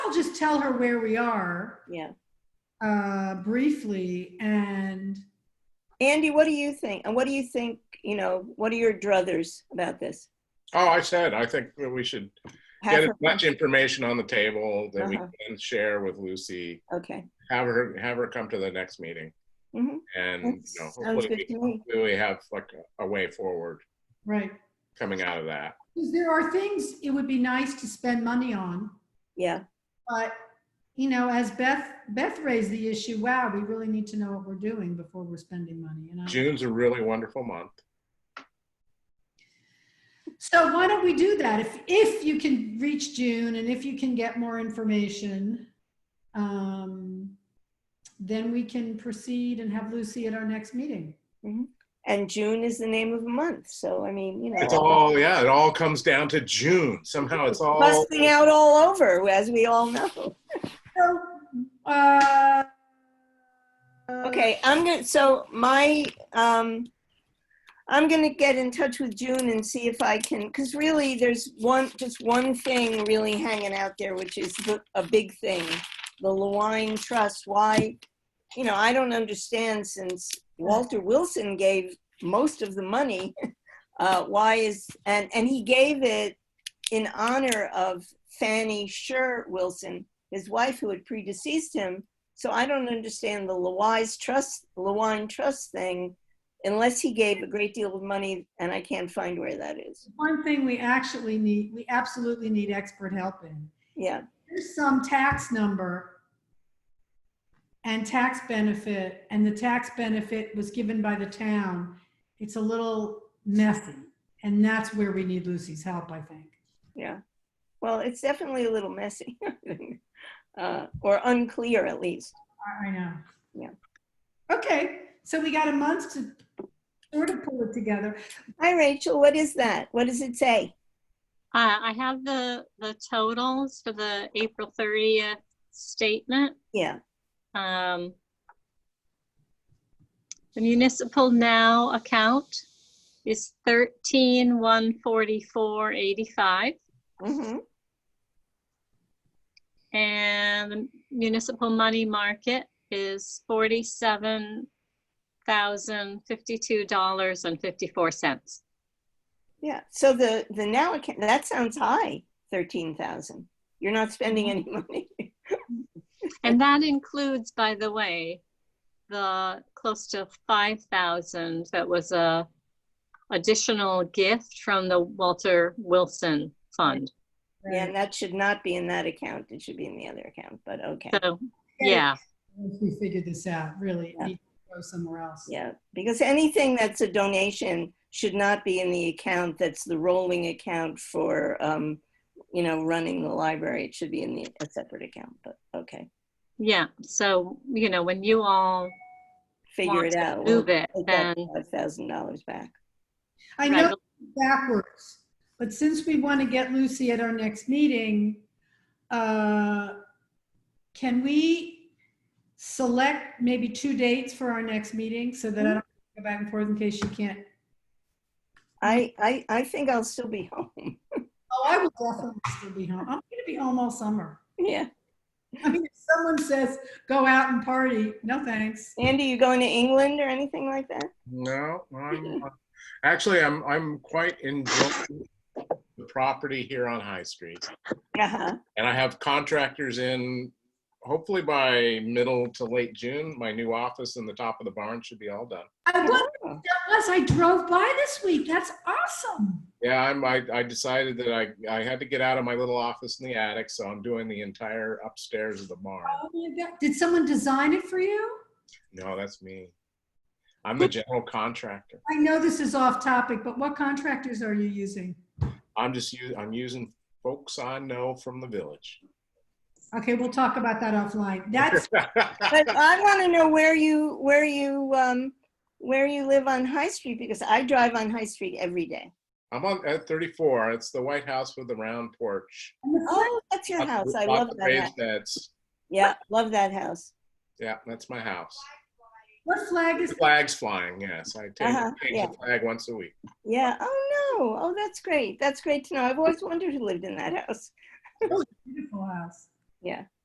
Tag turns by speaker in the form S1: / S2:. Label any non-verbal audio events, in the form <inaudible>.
S1: I'll just tell her where we are
S2: yeah.
S1: uh, briefly and
S2: Andy, what do you think? And what do you think, you know, what are your druthers about this?
S3: Oh, I said, I think that we should
S2: Have
S3: get as
S2: her-
S3: much information on the table that we
S2: Uh-huh.
S3: can share with Lucy.
S2: Okay.
S3: Have her, have her come to the next meeting
S2: Mhm.
S3: and,
S2: That
S3: you know,
S2: Sounds
S3: hopefully
S2: good
S3: we-
S2: to me.
S3: hopefully we have like a a way forward
S1: right.
S3: coming out of that.
S1: Because there are things it would be nice to spend money on,
S2: Yeah,
S1: but you know, as Beth Beth raised the issue, wow, we really need to know what we're doing before we're spending money. You know.
S3: June's a really wonderful month.
S1: So why don't we do that? If, if you can reach June and if you can get more information, um, then we can proceed and have Lucy at our next meeting.
S2: and June is the name of a month, so I mean, you know.
S3: It's all, yeah, it all comes down to June. Somehow it's all,
S2: Busting out all over, as we all know.
S1: So, uh,
S2: Okay, I'm gonna, so my, um, I'm gonna get in touch with June and see if I can, because really, there's one, just one thing really hanging out there, which is the- a big thing. The Lewine Trust, why, you know, I don't understand since Walter Wilson gave most of the money. <laughs> Uh, why is, and, and he gave it in honor of Fanny Sher Wilson, his wife who had predeceased him. So I don't understand the Lewise Trust, Lewine Trust thing, unless he gave a great deal of money, and I can't find where that is.
S1: one thing we actually need, we absolutely need expert help in.
S2: Yeah,
S1: There's some tax number and tax benefit, and the tax benefit was given by the town. It's a little messy, and that's where we need Lucy's help, I think.
S2: yeah. Well, it's definitely a little messy, <laughs> uh, or unclear at least.
S1: I- I know.
S2: Yeah.
S1: Okay, so we got a month to sort of pull it together.
S2: Hi, Rachel. What is that? What does it say?
S4: Uh, I have the, the totals for the April thirtieth statement.
S2: Yeah,
S4: Um, The municipal now account is thirteen one forty-four eighty-five.
S2: hmm
S4: And the municipal money market is forty-seven thousand fifty-two dollars and fifty-four cents.
S2: yeah. So the, the now account, that sounds high, 13,000. You're not spending any money.
S4: And that includes, by the way, the close to five thousand that was a additional gift from the Walter Wilson Fund.
S2: Yeah, and that should not be in that account. It should be in the other account, but okay.
S4: So, yeah,
S1: Once we figure this out, really,
S2: Yeah.
S1: we go somewhere else.
S2: Yeah, because anything that's a donation should not be in the account that's the rolling account for, um, you know, running the library. It should be in the, a separate account, but okay.
S4: yeah. So, you know, when you all
S2: Figure
S4: want
S2: it
S4: to
S2: out.
S4: move it,
S2: We'll take
S4: then.
S2: that Five thousand dollars back.
S1: I
S4: Right,
S1: know it's backwards, but since we want to get Lucy at our next meeting, uh, can we select maybe two dates for our next meeting so that I don't go back and forth in case she can't?
S2: I, I, I think I'll still be <laughs> home.
S1: Oh, I will definitely still be home. I'm going to be home all summer.
S2: Yeah.
S1: I mean, if someone says, go out and party, no thanks.
S2: Andy, you going to England or anything like that?
S3: no,
S2: <laughs>
S3: I'm, actually, I'm, I'm quite enjoying the property here on High Street.
S2: <laughs> Uh-huh.
S3: And I have contractors in, hopefully by middle to late June, my new office in the top of the barn should be all done.
S1: I wonder what that was. I drove by this week. That's awesome.
S3: Yeah, I'm, I, I decided that I, I had to get out of my little office in the attic, so I'm doing the entire upstairs of the barn.
S1: Oh my God. Did someone design it for you?
S3: No, that's me. I'm the general contractor.
S1: I know this is off topic, but what contractors are you using?
S3: I'm just, u- I'm using folks I know from the village. <laughs>
S1: Okay, we'll talk about that offline. That's
S2: But I want to know where you, where you, um, where you live on High Street, because I drive on High Street every day.
S3: I'm on at 34. It's the White House with the round porch.
S2: Oh, that's your house. I
S3: Lots
S2: love
S3: of
S2: that house.
S3: raised beds.
S2: Yeah, love that house.
S3: Yeah, that's my house.
S1: what flag is
S3: Flags flying, yes. I take,
S2: Uh-huh,
S3: change
S2: yeah.
S3: the flag once a week.
S2: Yeah. Oh no. Oh, that's great. That's great to know. I've always wondered who lived in that house.
S1: beautiful house.
S2: Yeah.